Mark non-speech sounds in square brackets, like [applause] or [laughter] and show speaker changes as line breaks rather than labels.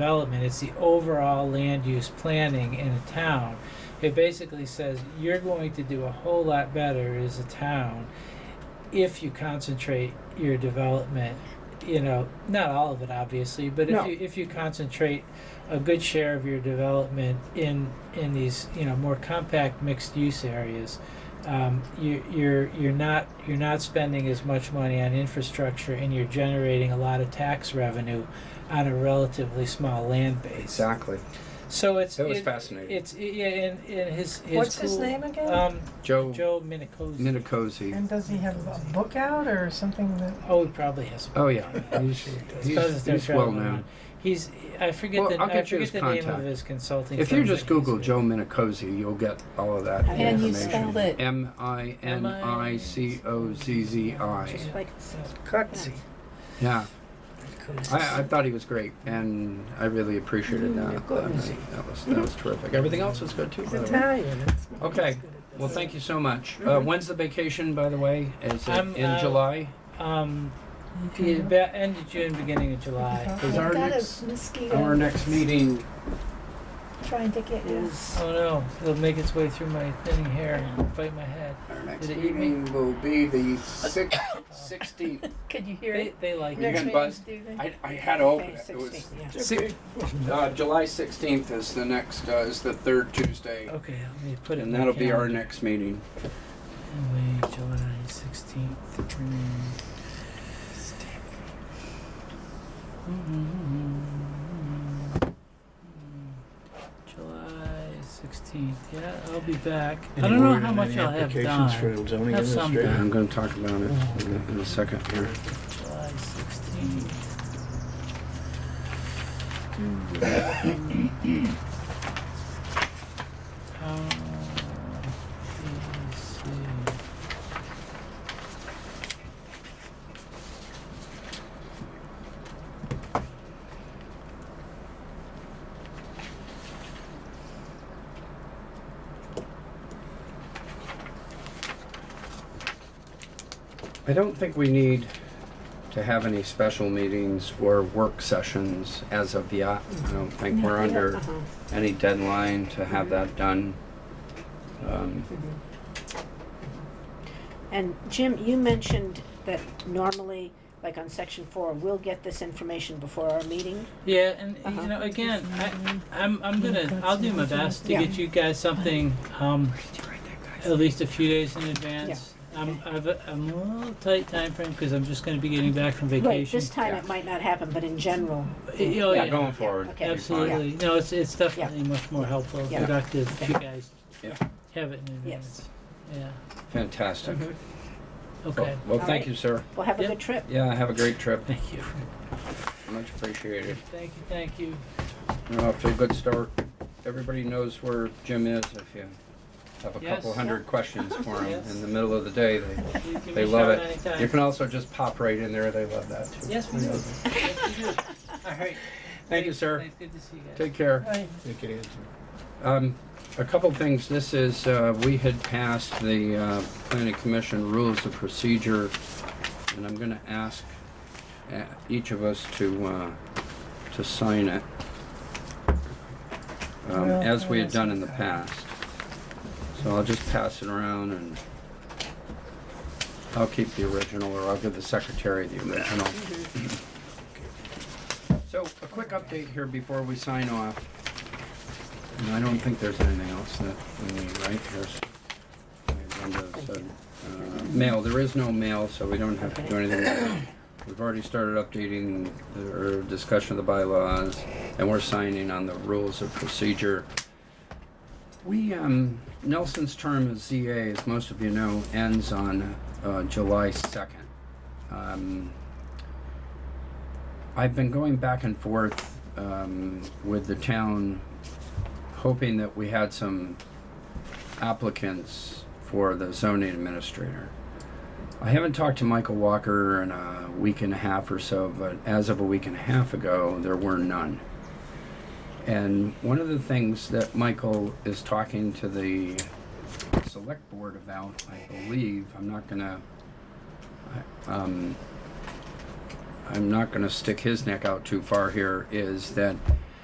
development, it's the overall land use planning in a town. It basically says you're going to do a whole lot better as a town if you concentrate your development, you know, not all of it obviously, but if
No.
you, if you concentrate a good share of your development in, in these, you know, more compact mixed use areas, um, you, you're, you're not, you're not spending as much money on infrastructure and you're generating a lot of tax revenue on a relatively small land base.
Exactly.
So it's
That was
it-
fascinating.
It's yeah, and, and his, his
What's his
cool-
name again?
Um,
Joe
Joe Minicozy.
Minicozy.
And does he have a book out or something that?
oh, he probably has.
Oh yeah,
[laughs]
he's,
His
he's,
cousins are
he's well
traveling
known.
around. He's I forget
Well,
the
I'll
I
get you his
forget the name
contact.
of his consulting.
If you
firm
just
that he's
Google
with.
Joe Minicozy, you'll get all of that
And
information.
you spelled it.
M I N I C O Z Z I.
Just like
Gutsy.
Yeah, I, I thought he was great, and I really appreciated that. That was, that was, that was terrific. Everything else was good too.
He's
by the way.
Italian. It's-
Okay. Well, thank you so much. Uh, when's the vacation, by the way? Is it
I'm,
in
uh,
July?
Um, he- about end of June, beginning of July.
Is our
I've got
next-
a mosquito
Our next meeting.
trying to get you.
is
Oh no, it'll make its way through my thinning hair and bite my head.
Our next
Did it eat me?
meeting will be the [coughs] six- 16th.
Could you hear
They,
it?
they like
You're
it.
Next
gonna
meeting,
buzz?
do they?
I, I had to open
Okay,
it. It was
16, yeah.
six, uh, July 16th is the next, uh, is the third Tuesday.
Okay, let me put it. in
And
my
that'll be our
calendar.
next meeting.
Anyway, July sixteenth. July sixteenth. Yeah, I'll be back. I don't know how much I'll have done. Have some
Yeah,
done.
I'm gonna talk about it in a- in a second here.
July sixteenth. Um, let's see.
I don't think we need to have any special meetings or work sessions as of yet. I don't think we're under
Uh-huh.
any deadline to have that done. Um,
And Jim, you mentioned that normally, like on section four, we'll get this information before our meeting.
Yeah, and uh,
Uh-huh.
you know, again, I, I'm I'm gonna I'll do my best to
Yeah.
get you guys something um, at least a few days in advance. I'm I've a, I'm a little tight time frame because I'm just gonna be getting back from
Right,
vacation.
this time it might not happen, but in general,
Y- oh,
Yeah,
yeah,
going forward. it'll be fine.
absolutely. No, it's it's definitely much more helpful, and
Yeah.
productive if you
Okay.
guys
Yeah.
have it in advance.
Yes.
Yeah.
Fantastic.
Okay.
Well,
All
thank
right.
you, sir.
we'll have a
Yep.
good trip.
Yeah, have a great trip.
Thank you.
Much appreciated.
Thank you. Thank you.
We're off to a good start. Everybody knows where Jim is if you have a
Yes.
couple hundred questions for him
Yes.
in the middle of the day. They,
You give me
they
a
love
shout
it.
Anytime.
You can also just pop right in there. They love that too.
Yes, we do. yes, we do. All right.
[laughs] Thank you, sir.
Thanks. Good to see you guys.
Take care.
Right.
Take it easy.
Um, a couple things. This is, uh, we had passed the, uh, planning commission rules of procedure, and I'm gonna ask, uh, each of us to, uh, to sign it. Um,
Well,
as we had
yes.
done in the past. So I'll just pass it around and I'll keep the original, or I'll give the secretary the original. So, a quick update here before we sign off. And I don't think there's anything else that we need, right? There's the agenda, so, uh, mail, there is no mail, so we don't have to do anything. with that. We've already started updating the or discussion of the bylaws, and we're signing on the rules of procedure. We, um, Nelson's term as ZA, as most of you know, ends on uh, July 2nd. Um, I've been going back and forth um, with the town, hoping that we had some applicants for the zoning administrator. I haven't talked to Michael Walker in a week and a half or so, but as of a week and a half ago, there were none. And one of the things that Michael is talking to the select board about, I believe, I'm not gonna, I- um, I'm not gonna stick his neck out too far here, is that